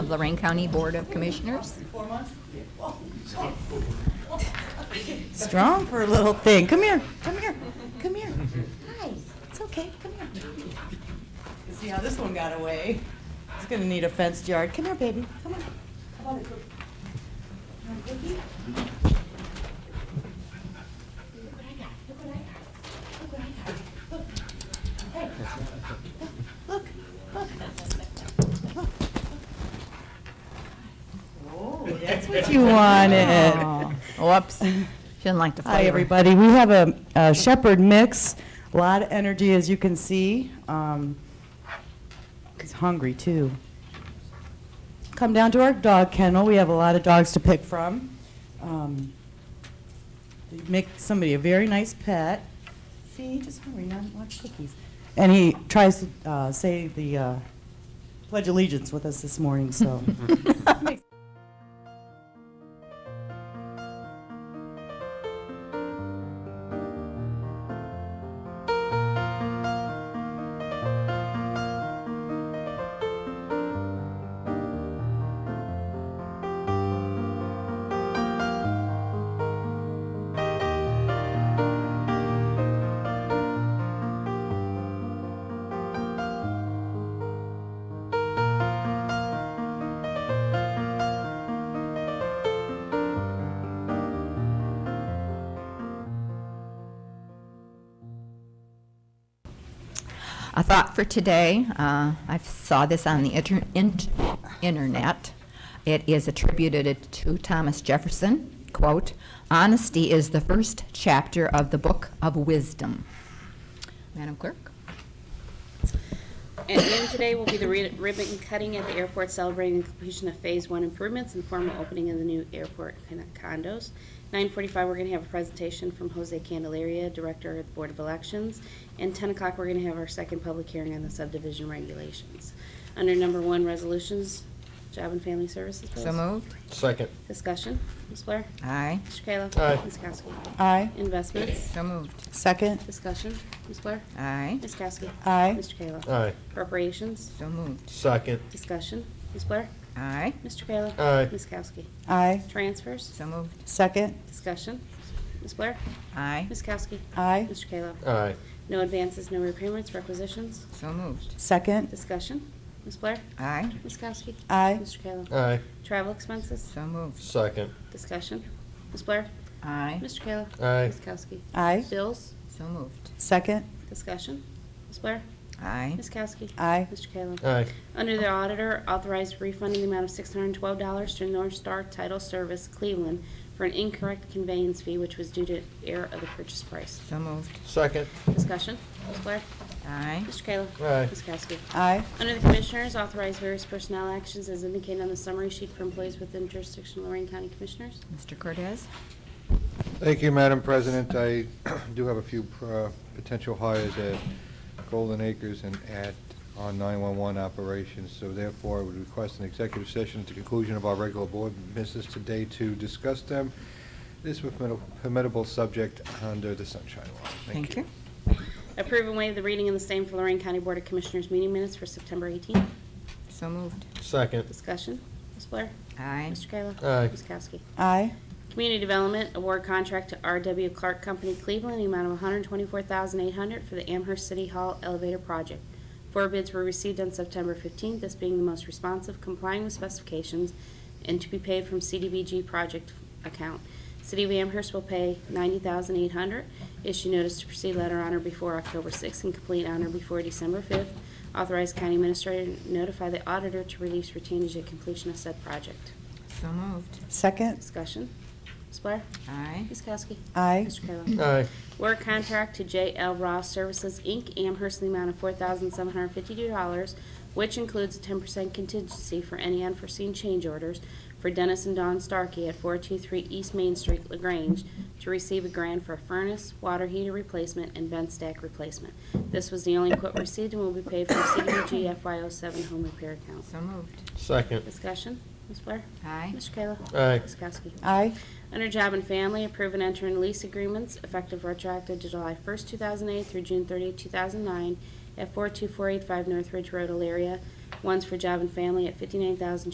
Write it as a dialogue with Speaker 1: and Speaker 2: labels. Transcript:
Speaker 1: Lorraine County Board of Commissioners.
Speaker 2: Strong for a little thing. Come here, come here, come here. Hi, it's okay, come here. You See how this one got away? It's gonna need a fenced yard. Come here, baby, come on. Come on, Cookie. Come on, Cookie. Look what I got. Look what I got. Look what I got. Look. Hey. Look, look, look. Oh, that's what you wanted.
Speaker 1: Whoops. She didn't like the flavor.
Speaker 2: Oh. Hi, everybody. We have a- a Shepherd mix, a lot of energy, as you can see. Um, He's hungry, too. Come down to our dog kennel. We have a lot of dogs to pick from. Um, they Make somebody a very nice pet. See, he's just hungry, not much cookies. And he tries to uh, say the uh, Pledge Allegiance with us this morning, so.
Speaker 1: A thought for today, uh, I saw this on the inter- int- internet. It is attributed to Thomas Jefferson, quote, "Honesty is the first chapter of the book of wisdom." Madam Clerk?
Speaker 3: At noon today will be the ri- ribbon cutting at the airport celebrating the completion of Phase One improvements and formal opening of the new airport con- condos. Nine forty-five, we're gonna have a presentation from Jose Candelaria, Director of the Board of Elections. And ten o'clock, we're gonna have our second public hearing on the subdivision regulations. Under number one, resolutions, Job and Family Services bills.
Speaker 1: So moved.
Speaker 4: Second.
Speaker 3: Discussion, Ms. Blair?
Speaker 1: Aye.
Speaker 3: Mr. Kayla?
Speaker 4: Aye.
Speaker 3: Ms. Kowski?
Speaker 2: Aye.
Speaker 3: Investments,
Speaker 1: So moved.
Speaker 2: Second.
Speaker 3: discussion, Ms. Blair?
Speaker 1: Aye.
Speaker 3: Ms. Kowski?
Speaker 2: Aye.
Speaker 3: Mr. Kayla?
Speaker 4: Aye.
Speaker 3: Appropriations,
Speaker 1: So moved.
Speaker 4: Second.
Speaker 3: discussion, Ms. Blair?
Speaker 1: Aye.
Speaker 3: Mr. Kayla?
Speaker 4: Aye.
Speaker 3: Ms. Kowski?
Speaker 2: Aye.
Speaker 3: Transfers?
Speaker 1: So moved.
Speaker 2: Second.
Speaker 3: Discussion? Ms. Blair?
Speaker 1: Aye.
Speaker 3: Ms. Kowski?
Speaker 2: Aye.
Speaker 3: Mr. Kayla?
Speaker 4: Aye.
Speaker 3: No advances, no repayments, requisitions?
Speaker 1: So moved.
Speaker 2: Second.
Speaker 3: Discussion? Ms. Blair?
Speaker 1: Aye.
Speaker 3: Ms. Kowski?
Speaker 2: Aye.
Speaker 3: Mr. Kayla?
Speaker 4: Aye.
Speaker 3: Travel expenses?
Speaker 1: So moved.
Speaker 4: Second.
Speaker 3: Discussion? Ms. Blair?
Speaker 1: Aye.
Speaker 3: Mr. Kayla?
Speaker 4: Aye.
Speaker 3: Ms. Kowski?
Speaker 2: Aye.
Speaker 3: Bills?
Speaker 1: So moved.
Speaker 2: Second.
Speaker 3: Discussion? Ms. Blair?
Speaker 1: Aye.
Speaker 3: Ms. Kowski?
Speaker 2: Aye.
Speaker 3: Mr. Kayla?
Speaker 4: Aye.
Speaker 3: Under the auditor, authorized refunding the amount of $612 to North Star Title Service Cleveland for an incorrect conveyance fee which was due to error of the purchase price.
Speaker 1: So moved.
Speaker 4: Second.
Speaker 3: Discussion, Ms. Blair?
Speaker 1: Aye.
Speaker 3: Mr. Kayla?
Speaker 4: Aye.
Speaker 3: Ms. Kowski?
Speaker 2: Aye.
Speaker 3: Under the Commissioners, authorize various personnel actions as indicated on the summary sheet for employees within jurisdiction of Lorraine County Commissioners.
Speaker 1: Mr. Cortez?
Speaker 5: Thank you, Madam President. I do have a few uh, potential hires at Golden Acres and at our 911 operations, so therefore I would request an executive session at the conclusion of our regular board business today to discuss them. This is a formidable- formidable subject under the Sunshine Law. Thank you.
Speaker 3: Approve and waive the reading of the same for Lorraine County Board of Commissioners meeting minutes for September 18th.
Speaker 1: So moved.
Speaker 4: Second.
Speaker 3: Discussion, Ms. Blair?
Speaker 1: Aye.
Speaker 3: Mr. Kayla?
Speaker 4: Aye.
Speaker 3: Ms. Kowski?
Speaker 2: Aye.
Speaker 3: Community Development Award Contract to R.W. Clark Company Cleveland, the amount of $124,800 for the Amherst City Hall Elevator Project. Four bids were received on September 15th, this being the most responsive, complying with specifications, and to be paid from CDBG project account. City of Amherst will pay $90,800. Issue notice to proceed letter honor before October 6th and complete honor before December 5th. Authorize county administrator to notify the auditor to release retainage at completion of said project.
Speaker 1: So moved.
Speaker 2: Second.
Speaker 3: Discussion. Ms. Blair?
Speaker 1: Aye.
Speaker 3: Ms. Kowski?
Speaker 2: Aye.
Speaker 3: Mr. Kayla?
Speaker 4: Aye.
Speaker 3: Award contract to J.L. Ross Services, Inc., Amherst, in the amount of $4,752, which includes a 10% contingency for any unforeseen change orders for Dennis and Dawn Starkey at 423 East Main Street, LaGrange, to receive a grant for a furnace, water heater replacement, and vent stack replacement. This was the only quote received and will be paid from CDBG FY07 home repair account.
Speaker 1: So moved.
Speaker 4: Second.
Speaker 3: Discussion, Ms. Blair?
Speaker 1: Aye.
Speaker 3: Mr. Kayla?
Speaker 4: Aye.
Speaker 3: Ms. Kowski?
Speaker 2: Aye.
Speaker 3: Under Job and Family, approve and enter in lease agreements effective retroactive to July 1st, 2008 through June 30th, 2009 at 42485 North Ridge Road, Elaria. One's for Job and Family at 59000